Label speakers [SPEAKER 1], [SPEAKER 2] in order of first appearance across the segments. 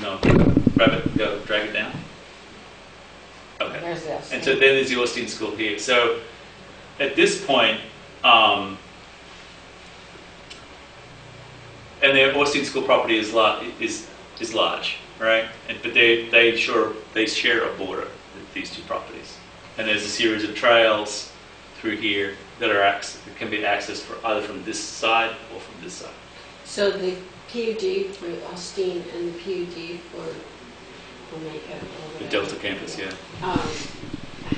[SPEAKER 1] know, grab it, go, drag it down? Okay.
[SPEAKER 2] There's this.
[SPEAKER 1] And so then there's the Austin School here. So at this point, um, and the Austin School property is lar- is, is large, right? And, but they, they sure, they share a border, with these two properties. And there's a series of trails through here that are, acc- that can be accessed for either from this side or from this side.
[SPEAKER 3] So the PUD for Austin and the PUD for Omega or
[SPEAKER 1] The
[SPEAKER 3] whatever.
[SPEAKER 1] Delta campus, yeah.
[SPEAKER 3] Um,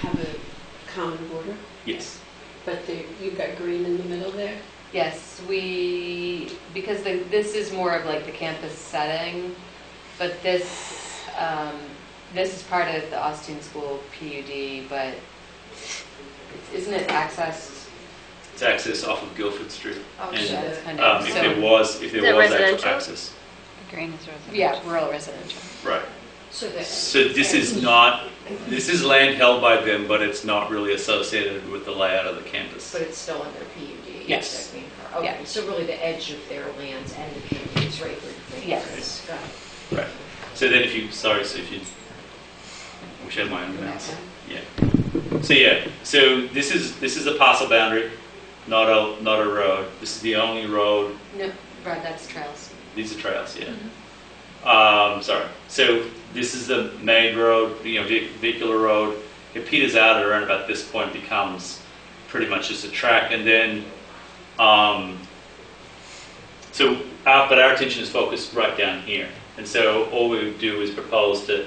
[SPEAKER 3] have a common border,
[SPEAKER 1] Yes.
[SPEAKER 3] but there, you've got green in the middle there?
[SPEAKER 2] Yes, we, because the, this is more of like the campus setting, but this, um, this is part of the Austin School PUD, but it's- isn't it accessed?
[SPEAKER 1] It's accessed off of Guilford Street.
[SPEAKER 2] Oh,
[SPEAKER 1] And,
[SPEAKER 2] shit, that's kind
[SPEAKER 1] Um,
[SPEAKER 2] of,
[SPEAKER 1] if there
[SPEAKER 2] so,
[SPEAKER 1] was, if
[SPEAKER 4] Is
[SPEAKER 1] there
[SPEAKER 4] that
[SPEAKER 1] was actual
[SPEAKER 4] residential?
[SPEAKER 1] access.
[SPEAKER 4] Green is residential.
[SPEAKER 2] yeah, rural residential.
[SPEAKER 1] Right.
[SPEAKER 3] So that,
[SPEAKER 1] So this is not, this is land held by them, but it's not really associated with the layout of the campus.
[SPEAKER 5] But it's still under PUD?
[SPEAKER 1] Yes.
[SPEAKER 5] I mean, Okay,
[SPEAKER 2] Yeah.
[SPEAKER 5] so really the edge of their lands and the PUD is right where the thing
[SPEAKER 2] Yes.
[SPEAKER 5] is. Got it.
[SPEAKER 1] Right. So then if you, sorry, so if you, I wish I had my own mouse. Yeah. So yeah, so this is, this is a parcel boundary, not a, not a road. This is the only road,
[SPEAKER 2] No, right, that's trails.
[SPEAKER 1] these are trails, yeah. Um, sorry. So this is the main road, you know, ve- vehicular road. It peters out at around about this point, becomes pretty much just a track, and then, um, so, our, but our attention is focused right down here. And so all we would do is propose to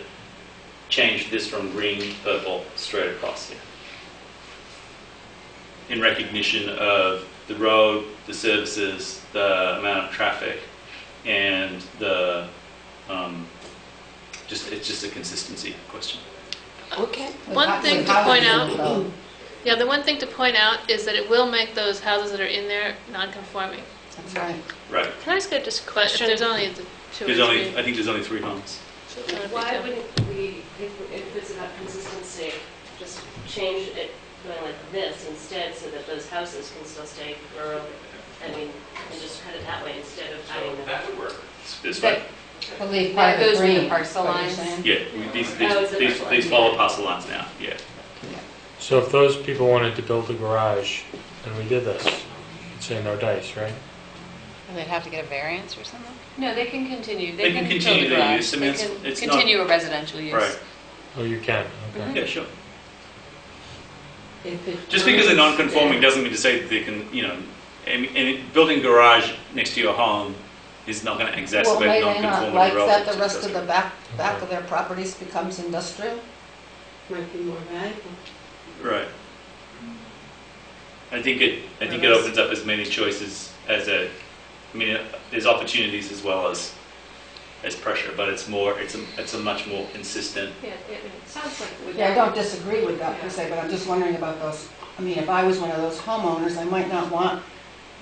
[SPEAKER 1] change this from green to purple straight across here. In recognition of the road, the services, the amount of traffic, and the, um, just, it's just a consistency question.
[SPEAKER 3] okay.
[SPEAKER 4] One thing to point out,
[SPEAKER 2] Oh,
[SPEAKER 4] yeah, the one thing to point out is that it will make those houses that are in there non-conforming.
[SPEAKER 2] That's right.
[SPEAKER 1] Right.
[SPEAKER 4] Can I just get just question, if there's only the two or
[SPEAKER 1] There's only,
[SPEAKER 4] three?
[SPEAKER 1] I think there's only three homes.
[SPEAKER 6] Why wouldn't we, if, if it's about consistency, just change it going like this instead so that those houses can still stay rural? I mean, and just cut it that way instead of having them.
[SPEAKER 1] would work. This way?
[SPEAKER 7] We'll leave part of
[SPEAKER 2] That
[SPEAKER 7] the
[SPEAKER 2] goes with the
[SPEAKER 7] green.
[SPEAKER 2] parcel
[SPEAKER 7] what you're
[SPEAKER 2] lines.
[SPEAKER 7] saying.
[SPEAKER 1] Yeah, we- these,
[SPEAKER 6] Oh, is
[SPEAKER 1] these,
[SPEAKER 6] it
[SPEAKER 1] these-
[SPEAKER 6] that
[SPEAKER 1] these
[SPEAKER 6] one?
[SPEAKER 1] follow parcel lines now, yeah.
[SPEAKER 8] So if those people wanted to build a garage, and we did this, you'd say no dice, right?
[SPEAKER 4] They'd have to get a variance or something?
[SPEAKER 2] No, they can continue,
[SPEAKER 1] They
[SPEAKER 2] they
[SPEAKER 1] can
[SPEAKER 2] can build
[SPEAKER 1] continue
[SPEAKER 2] a
[SPEAKER 1] their
[SPEAKER 2] garage.
[SPEAKER 1] use. I
[SPEAKER 2] They
[SPEAKER 1] mean, it's-
[SPEAKER 2] can
[SPEAKER 1] it's not-
[SPEAKER 2] continue a residential use.
[SPEAKER 1] Right.
[SPEAKER 8] Oh, you can,
[SPEAKER 7] Hmm.
[SPEAKER 8] okay.
[SPEAKER 1] Yeah, sure.
[SPEAKER 3] If it
[SPEAKER 1] Just because they're
[SPEAKER 3] turns
[SPEAKER 1] non-conforming doesn't mean to say that they can, you know, and, and it- building a garage next to your home is not going to
[SPEAKER 7] Well, may
[SPEAKER 1] exacerbate
[SPEAKER 7] they not
[SPEAKER 1] non-conformity
[SPEAKER 7] like
[SPEAKER 1] relative
[SPEAKER 7] that
[SPEAKER 1] to
[SPEAKER 7] the rest of the
[SPEAKER 1] accessory.
[SPEAKER 7] back, back of their properties becomes industrial?
[SPEAKER 3] Might be more valuable.
[SPEAKER 1] Right. I think it, I think it
[SPEAKER 4] Nice.
[SPEAKER 1] opens up as many choices as a, I mean, there's opportunities as well as, as pressure, but it's more, it's a, it's a much more consistent,
[SPEAKER 6] Yeah, it it sounds like. we-
[SPEAKER 7] Yeah, I don't disagree with that per se, but I'm just wondering about those, I mean, if I was one of those homeowners, I might not want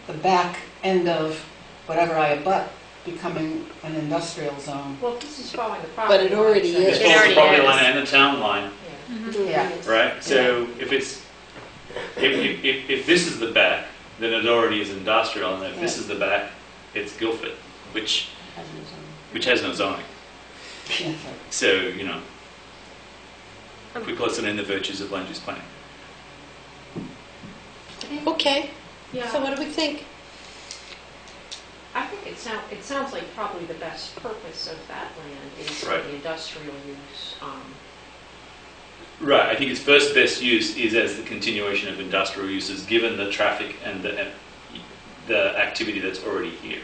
[SPEAKER 7] the back end of whatever I abut becoming
[SPEAKER 5] Mm-hmm.
[SPEAKER 7] an industrial zone.
[SPEAKER 5] Well, this is following the property.
[SPEAKER 3] But it already
[SPEAKER 5] line, so-
[SPEAKER 1] it's
[SPEAKER 3] is.
[SPEAKER 1] both the
[SPEAKER 4] already
[SPEAKER 1] property
[SPEAKER 4] is.
[SPEAKER 1] line and the town line,
[SPEAKER 7] Yeah.
[SPEAKER 1] right? So if it's, if, if, if, if this is the back, then it already is industrial, and if this is the back, it's Guilford, which, which has no zoning.
[SPEAKER 7] Yeah.
[SPEAKER 1] So, you know, quick lesson in the virtues of land use planning.
[SPEAKER 3] Okay, so
[SPEAKER 5] Yeah,
[SPEAKER 3] what do we think?
[SPEAKER 5] I think it sounds, it sounds like probably the best purpose of that land is for
[SPEAKER 1] Right.
[SPEAKER 5] the industrial use. um,
[SPEAKER 1] Right, I think its first best use is as the continuation of industrial uses, given the traffic and the, the activity that's already here.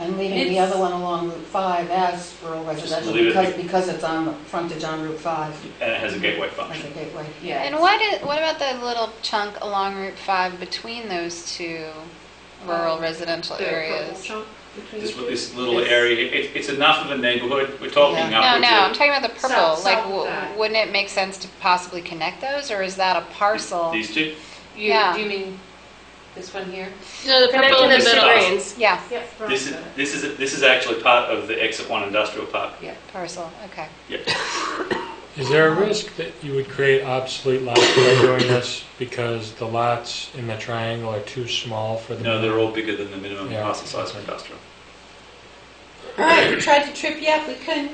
[SPEAKER 7] And leaving the other one along Route 5 as rural residential
[SPEAKER 1] leave it.
[SPEAKER 7] because, because it's on the frontage on Route 5
[SPEAKER 1] And it has a gateway
[SPEAKER 7] as a
[SPEAKER 1] function.
[SPEAKER 7] gateway.
[SPEAKER 2] Yeah.
[SPEAKER 4] And why did, what about the little chunk along Route 5 between those two rural residential
[SPEAKER 5] Um, the purple
[SPEAKER 4] areas?
[SPEAKER 5] chunk between
[SPEAKER 1] This,
[SPEAKER 5] the two.
[SPEAKER 1] this little area, it, it's enough of a neighborhood, we're talking
[SPEAKER 4] No, no, I'm
[SPEAKER 1] upwards
[SPEAKER 4] talking about the purple,
[SPEAKER 5] South-
[SPEAKER 4] like,
[SPEAKER 5] south of
[SPEAKER 4] w-
[SPEAKER 5] that.
[SPEAKER 4] wouldn't it make sense to possibly connect those, or is that a
[SPEAKER 1] of
[SPEAKER 4] parcel?
[SPEAKER 1] these two.
[SPEAKER 2] You,
[SPEAKER 4] Yeah.
[SPEAKER 2] do you mean this one here?
[SPEAKER 4] No, the
[SPEAKER 6] Connecting them to the
[SPEAKER 1] middle.
[SPEAKER 6] greens.
[SPEAKER 4] Yeah,
[SPEAKER 5] Yep, front
[SPEAKER 1] This is,
[SPEAKER 5] of it.
[SPEAKER 1] this is, this is actually part of the exit one industrial park.
[SPEAKER 4] parcel, okay.
[SPEAKER 8] Is there a risk that you would create obsolete lots by doing this because the lots in the triangle are too small for the?
[SPEAKER 1] No, they're all bigger than the minimum
[SPEAKER 8] Yeah.
[SPEAKER 1] parcel size for industrial.
[SPEAKER 3] All right, we tried to trip you up, we couldn't.